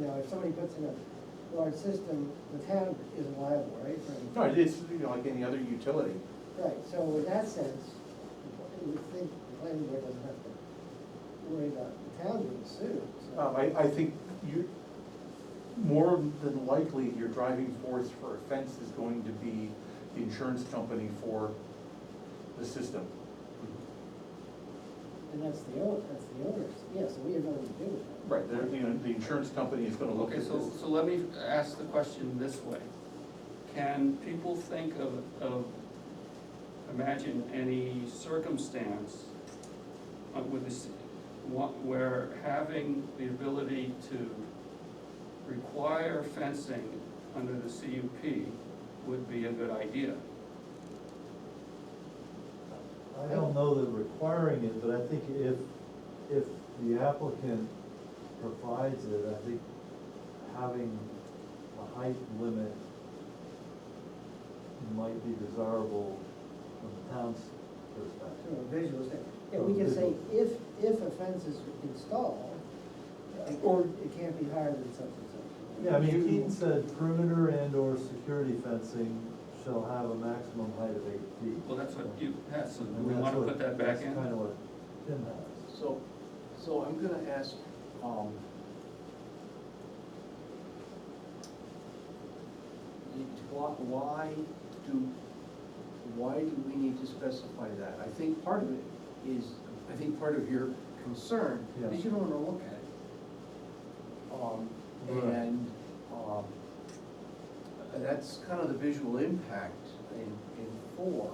if somebody puts in a large system, the town isn't liable, right? for anything? No, it's, you know, like any other utility. Right, so in that sense, you would think the planning board doesn't have to worry about the town being sued, so. Um, I, I think you, more than likely, your driving force for offense is going to be the insurance company for the system. And that's the owner, that's the owners, yeah, so we have nothing to do with that. Right, they're, you know, the insurance company is gonna look Okay, at this. so, so let me ask the question this way. Can people think of, of, imagine any circumstance uh, with this, wha- where having the ability to require fencing under the CUP would be a good idea? I don't know that requiring it, but I think if, if the applicant provides it, I think having a height limit might be desirable from the town's From perspective. a visual standpoint, yeah, we can say if, if a fence is installed, like, or it can't be higher than such and such. Yeah, I mean, Keaton said perimeter and or security fencing shall have a maximum height of eight feet. Well, that's what you, had. so do And we that's wanna what- put that back in? That's kinda what Tim has. So, so I'm gonna ask, um, you- why- why do, why do we need to specify that? I think part of it is, I think part of your concern is Yeah. you don't wanna look at it. Um, Right. and, um, that's kind of the visual impact in, in four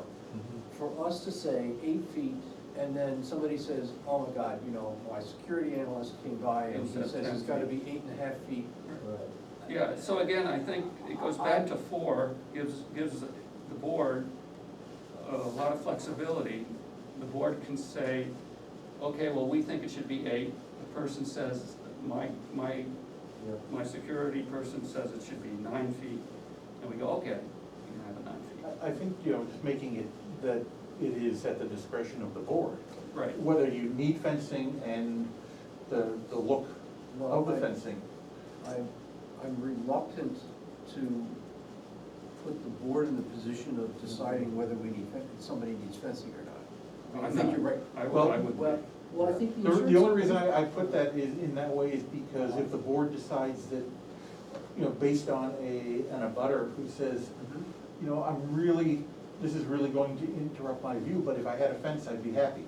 for us to say eight feet, and then somebody says, oh my God, you know, my security analyst came by and he says it's gotta be eight and a half feet. Mm-hmm. Right. Yeah, so again, I think it goes back to four, gives, gives the board a lot of flexibility. The board can say, okay, well, we think it should be eight. The person says, my, my, Yeah. my security person says it should be nine feet. And we go, okay, you can have it nine feet. I, I think, you know, just making it that it is at the discretion of the board, Right, whether you need fencing and the, the look of the fencing. I'm, I'm reluctant to put the board in the position of deciding whether we need, fen- somebody needs fencing or not. I mean, I think you're right. I Well, would, I would. Well, well, I think the The, insurance. the only reason I, I put that is, in that way is because if the board decides that, you know, based on a, on a butter who says, Mhm. you know, I'm really, this is really going to interrupt my view, but if I had a fence, I'd be happy,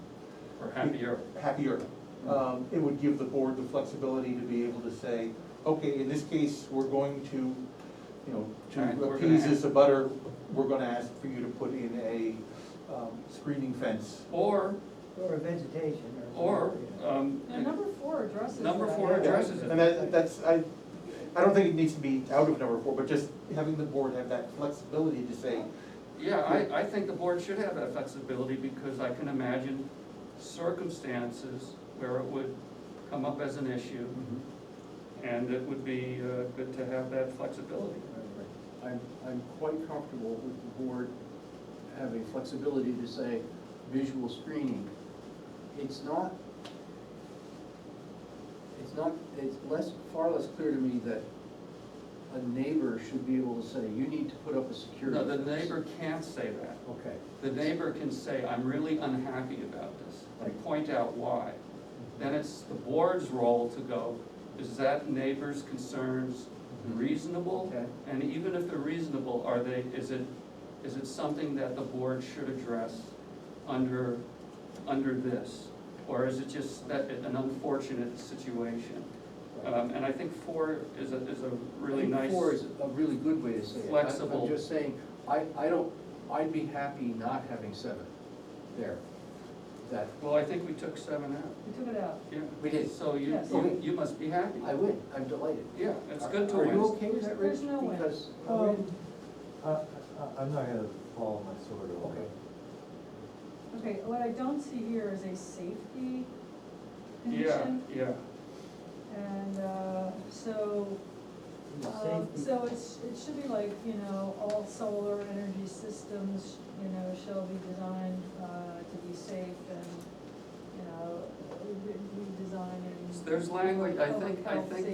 Or happier, happier. Um, it would give the board the flexibility to be able to say, okay, in this case, we're going to, you know, Alright, to we're gonna appease ask- this abutter, we're gonna ask for you to put in a, um, screening fence. or, Or vegetation, or. or, um. Now, number four addresses that. Number four addresses it. And that, that's, I, I don't think it needs to be out of number four, but just having the board have that flexibility to say, Yeah, I, I think the board should have that flexibility because I can imagine circumstances where it would come up as an issue Mm-hmm. and it would be uh, good to have that flexibility. I'm, I'm quite comfortable with the board having flexibility to say visual screening. It's not, it's not, it's less, far less clear to me that a neighbor should be able to say, you need to put up a security No, fence. the neighbor can't say that. Okay, The neighbor can say, I'm really unhappy about this, and point out why. Then it's the board's role to go, is that neighbor's concerns reasonable? okay, And even if they're reasonable, are they, is it, is it something that the board should address under, under this? Or is it just that, an unfortunate situation? Um, and I think four is a, is a really I nice. think Four is a really good way to say it. I- flexible- I'm just saying, I, I don't, I'd be happy not having seven there. That, Well, I think we took seven out, We took it out. yeah. We did. So you, Yes. you, you must be happy. I win, I'm delighted. Yeah, it's good to Are you win. okay with that, Rich? There's no way. Because- Um, I, I, I'm not gonna follow my sword at all. Okay. Okay, what I don't see here is a safety Yeah, condition. yeah. And, uh, so, um, so it's, it should be like, you know, all solar energy systems, you know, shall be designed, uh, to be safe and, you know, re- redesigned and. There's language, I public think- I health, think